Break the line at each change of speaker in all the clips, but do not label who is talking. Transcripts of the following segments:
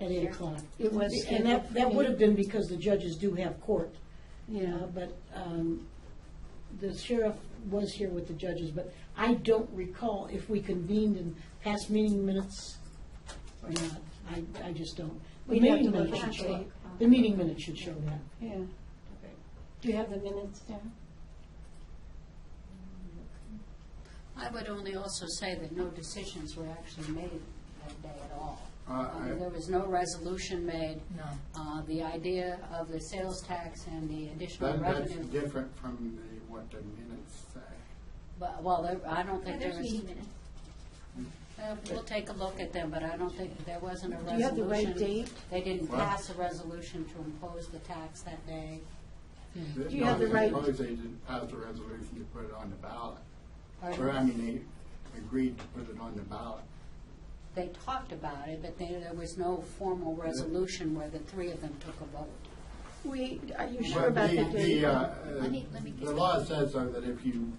at eight o'clock.
It was
And that,
scheduled
that
for
would
me.
have been because the judges do have court,
Yeah,
uh, but um, the sheriff was here with the judges, but I don't recall if we convened in past meeting minutes or not. I, I just don't. The
We'd have
meeting
to look
minutes should
at
show,
it.
the meeting minutes should show that.
yeah. Do you have the minutes down?
I would only also say that no decisions were actually made that day at all.
Uh,
I mean,
I-
There was no resolution made.
No.
Uh, The idea of the sales tax and the additional
That, that's
revenue,
different from the, what the minutes say.
but, well, there- I don't think
Yeah,
there
There's
was,
meeting minutes.
uh, we'll take a look at them, but I don't think, there wasn't a
Do you have
resolution.
the right date?
They didn't
What?
pass a resolution to impose the tax that day.
Do you have the right-
Suppose they didn't pass the resolution to put it on the ballot,
Or
or, I mean, they agreed to put it on the ballot.
They talked about it, but there there was no formal resolution where the three of them took a vote.
We, are you
But
sure about
the-
the
The,
date?
uh,
Let me- let me
uh,
get
the law says though that if you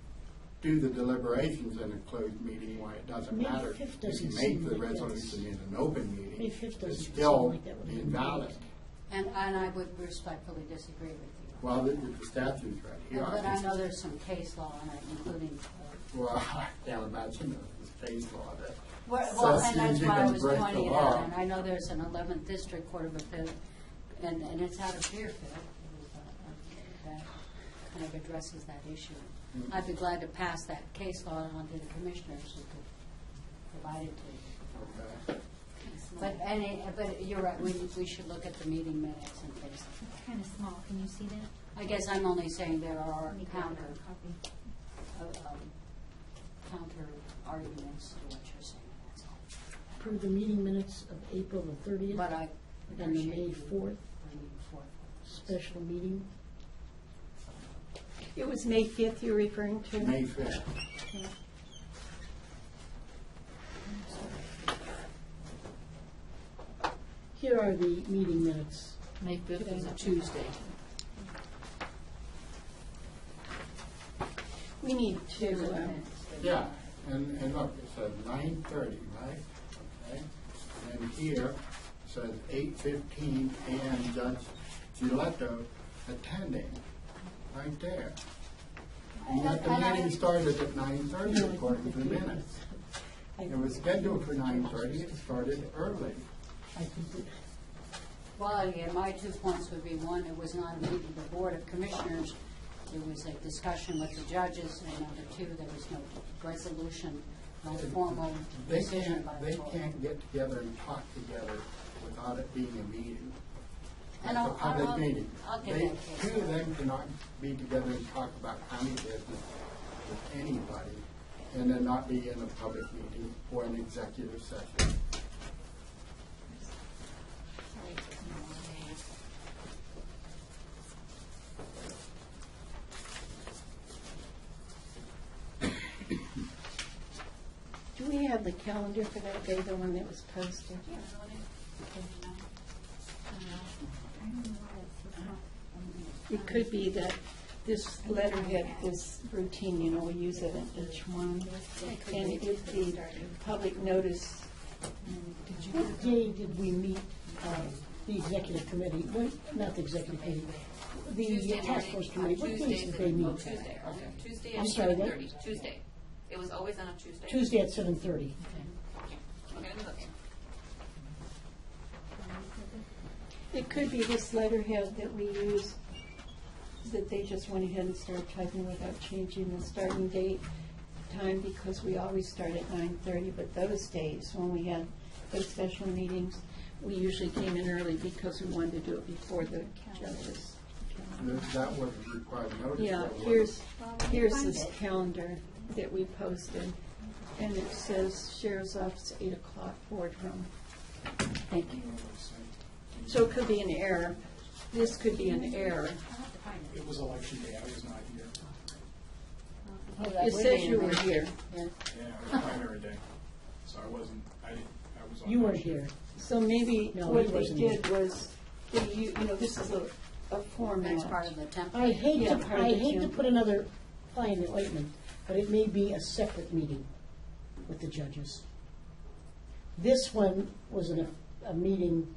do the deliberations in a closed meeting, why it doesn't
May
matter.
5th
If you
doesn't
make
seem
the
like that's-
resolution in an open meeting,
May 5th doesn't
it's
seem
still
like that would be
invalid.
correct.
And, and I would respectfully disagree with you.
Well, the, the statute's right here.
But I know there's some case law on it, including, uh,
Well, I can't imagine the state law that.
well, well,
says
and that's
you
why I
can
was
break the
pointing it
law.
out. And I know there's an eleventh district court of appeal, and, and it's out of Deerfield. uh, That kind of addresses that issue.
Mm-hmm.
I'd be glad to pass that case law on to the commissioners who could provide it to you.
Okay.
But any, but you're right, we, we should look at the meeting minutes and things.
It's kind of small, can you see that?
I guess I'm only saying there are
Let me grab
counter
another copy.
of, um, counter arguments to what you're saying, that's all.
Approve the meeting minutes of April the thirtieth
uh,
But I
and the
appreciate
May
you
fourth
bringing forth.
special meeting.
It was May 5th you're referring to?
May fifth.
Here are the meeting minutes.
May fifth is a Tuesday.
We need
Here's the
to, um,
minutes.
Yeah, and, and look, it says nine thirty, right? Okay, and here it says eight fifteen and Judge Giletto attending, right there. And yet the
And I-
meeting started at nine thirty according to the minutes.
I-
It was scheduled for nine thirty, it started early.
I think
Well, yeah, my two points would be, one, it was not a meeting of the Board of Commissioners, there was a discussion with the judges, and number two, there was no resolution, no formal
They
decision
can't,
by the
they
board.
can't get together and talk together without it being a meeting.
And I'll-
It's a
I'll-
public meeting.
I'll get
They,
that case.
two of them cannot be together and talk about county business with anybody and then not be in a public meeting or an executive session.
do we have the calendar for that day, the one that was posted?
Yeah, I wanna-
I don't know why it's- it's not-
It could be that this letterhead is routine, you know, we use it in each one. And if the public notice,
What day did we meet, uh, the executive committee, Wait, not the executive committee, the
Tuesday
task
morning,
force
on
committee, what
Tuesday,
days did they
oh,
meet?
Tuesday, right?
Okay.
Tuesday
I'm
at
sorry,
seven
what?
thirty, Tuesday. It was always on a Tuesday.
Tuesday at seven thirty.
Okay, let me look.
it could be this letterhead that we use, that they just went ahead and started typing without changing the starting date, time, because we always start at nine thirty, but those days, when we had those special meetings, we usually came in early because we wanted to do it before the judges.
That- That would require notice.
Yeah,
that would-
here's,
Well, we
here's
find
this
it.
calendar that we posted, and it says Sheriff's Office, eight o'clock, boardroom. Thank you. So it could be an error. This could be an error.
I'll have to find it.
It was election day, I was not here.
Oh, that
It
would
says
be
you
in
were
there.
here,
Yeah.
Yeah, it was primary day, so I wasn't, I didn't, I was on.
You were
election.
here.
so maybe
No,
what
it
they
wasn't.
did was, they, u- you know, this is a, a
That's part
format.
of the template.
I hate to,
Yeah, part of
I
the
hate to
calendar.
put another fly in the ointment, but it may be a separate meeting with the judges. This one was in a, a meeting